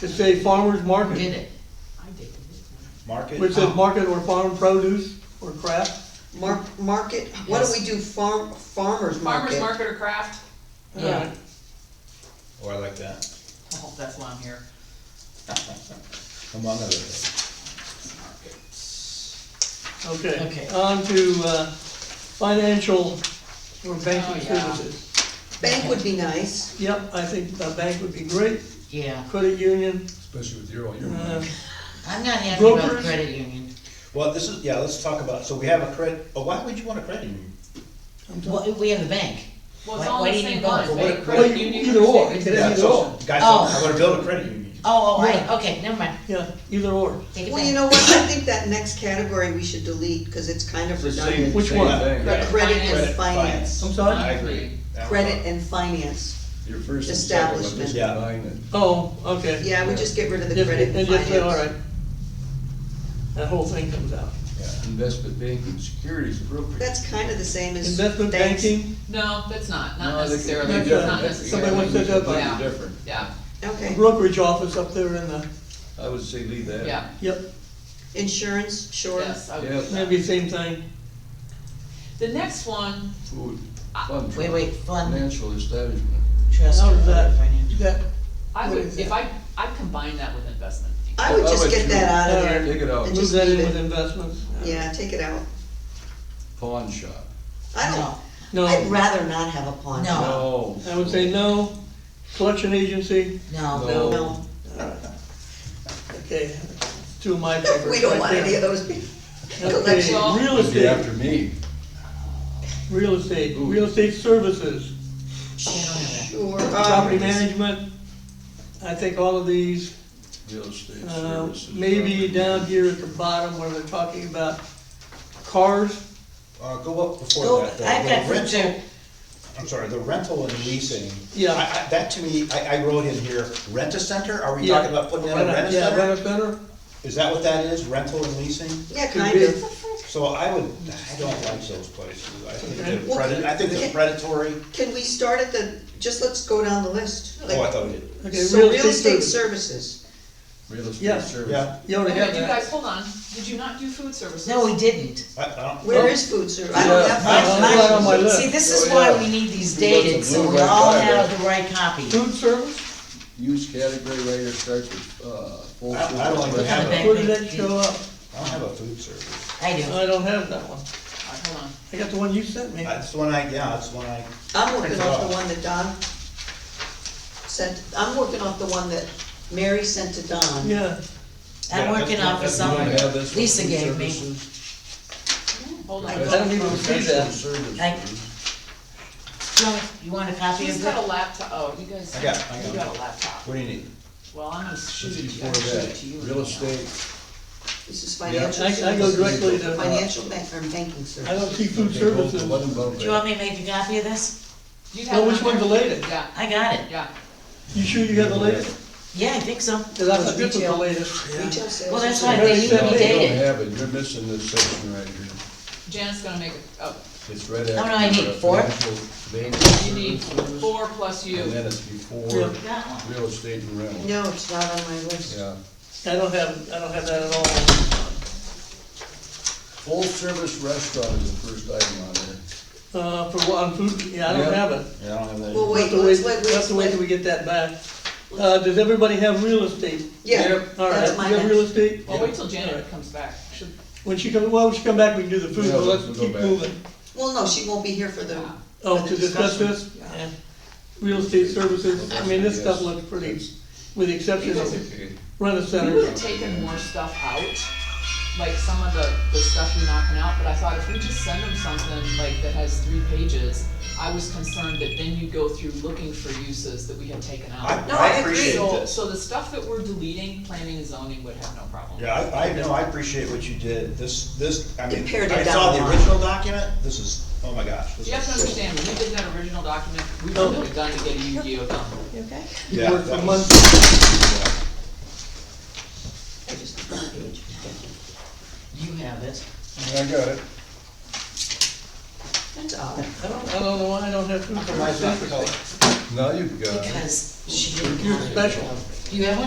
to say farmer's Did market, it. Market. which says market or farm produce or craft. Mar- market, what do we do, farm, farmer's market? Farmer's market or craft? Yeah, Or Oh, I like that, I hope that's why I'm here. among other things. Okay, Okay. on to, uh, financial or banking Oh, yeah. services. bank would be nice, Yep, I think a bank would be great, Yeah, credit union, especially with your, all Mm-hmm. your money. uh, I'm not happy about the Brokers? credit union. Well, this is, yeah, let's talk about, so we have a credit, oh, why would you want a credit union? I'm talking. Well, we have the bank. Well, it's Why- all why the do you need same both? line, Well, bank, what- credit well, union. either or, savings. it is Yeah, either so- or. Guys, Oh. I'm gonna build a credit union. Oh, oh, Yeah. I, okay, never mind, Yeah, either or. take it well, you back. know what, I think that next category we should delete, cause it's kind of It's the same, redundant. Which same one? thing. The credit and Credit, finance, I'm I sorry? agree. credit and finance, Your first and second one, just Establishment. Yeah. combine it. Oh, okay. yeah, we just get rid of the Just- credit and and just say, finance. All right. That whole thing comes out. Yeah. Investment banking, securities appropriate. That's kind of the same as. Investment banks. banking, No, that's not, No, not they can- necessarily, they That's different. not Somebody necessarily. wants to do it, but- Yeah. Different. Yeah, Okay, brokerage office up there in the, I would say leave that. yeah, yep, insurance, sure, yes. I would- Yes. maybe same thing. The next one, Food, Uh, fund. Wait, wait, fund, Financial establishment. trust, How or does other that, financial. that, I What would, is if that? I, I'd combine that with investment. I would I just would get too. that out of All there. right. Take it out. And move just that in leave with it, investments? yeah, take it out, Pawn shop. I No. don't, I'd No, rather not have a pawn No. shop. No. I would say no. Collection agency, No, No. No, okay, two of my favorites we don't right want any there. of those people. Okay, collection. real It'd be estate, after me. real estate, real estate services, I don't have that. Sure, property um, management. I think all of these Real estate Uh, services. Maybe property. down here at the bottom where they're talking about cars, Uh, go up before Go, that, though. I've The got food rental- too. I'm sorry, the rental and leasing. Yeah. I- I- That to me, I, I wrote in here, rent a center, are we Yeah. talking about putting in a Rent a- rent a yeah, center? rent a center? Is that what that is, rental and leasing? yeah, could kind be. of. So I would, I don't like those places, I think they're Well, predat, I think they're okay. predatory. Can we start at the, just let's go down the list. Oh, I Like, thought we did, Okay, so real estate service. services, Real Yeah. estate service. yeah, You already Wait a have minute, you that. guys, hold on, did you not do food services? No, we didn't. I, I don't, where is food service? I don't have Oh. Yeah. mine. Uh, not on my list. See, this is Oh, why yeah. we need these You got the dated, so blue we red all card. have the right copy. Food service, Use category right here starts with, uh. full I- I don't service. even have Back a, where did there. that show up? I don't have a food service. I do. I don't have that one. All right, hold on. I got the one you sent me. That's the one I, yeah, that's the one I, I'm working off the one that Don sent, I'm working off the one that Mary sent to Don. Yeah, I'm Yeah, working that's- off of that's- You someone don't have this one, Lisa food gave me. services? Hold I on. I don't even see Professional that. services. Like- No, You want a copy He's of got it? a laptop, oh, you guys, I got- I got you got a laptop. what do you need? Well, I'm gonna shoot What's it to you, before I'm gonna shoot it to you. that? Real estate, This is financial I, I go services, directly to, uh, financial bank, or banking I don't services. see food Okay, go services. to one above Do you want that. me to make a copy of this? You No, have which one one's the there? latest? Yeah, I got it. yeah, You sure you got the latest? Yeah, I think so. Cause I thought this was the latest. Retail sales. Well, that's and why Mary they need sent me. to be You don't dated. have it, you're missing this section right here. Janet's gonna make, a- oh, It's right no, after. I need the four. financial banking you need services, four plus And you. then it's before Yeah. Got one. real estate and rental. services. No, it's not on my list. Yeah. I don't have, I don't have that at all. Full service restaurant is the first item on there. Uh, for, what- on food, yeah, I don't Yeah. have it. Yeah, I don't have that. Well, We'll wait, have to wait, let's, we'll let, have let's, to wait till let, we get that back. Uh, does everybody have real estate? yeah, All right, that's you my have real next. estate? Well, wait till All right. Janet comes back. Should- When she comes, well, when she come back, we can do the food, Yeah, but we'll let's go keep back. moving. Well, no, she won't be here for the, Oh, For to the discuss this? discussion. Yeah. Real estate services, I mean, this stuff Yes. looks pretty, with the exception of Okay. rent-a-center. We would have taken more stuff out, like some of the, the stuff you're knocking out, but I thought if we just send them something like that has three pages, I was concerned that then you go through looking for uses that we had taken I, out. No, I I agree. appreciate So, this. so the stuff that we're deleting, planning and zoning would have no problem. Yeah, I, I know, I appreciate what you did, this, this, I mean, Compared to I saw down the the line. original document, this is, oh my gosh. this You have to is- understand, when we did that original document, we wouldn't have done to get a Yu-Gi-Oh done. you okay? You Yeah, work for that was- months. I just, front page. You have it. I got it. That's odd. I don't, I don't know why I don't have food Mine's not services. colored. Now you've got it. Because she didn't. You're want it. special. Do you have one?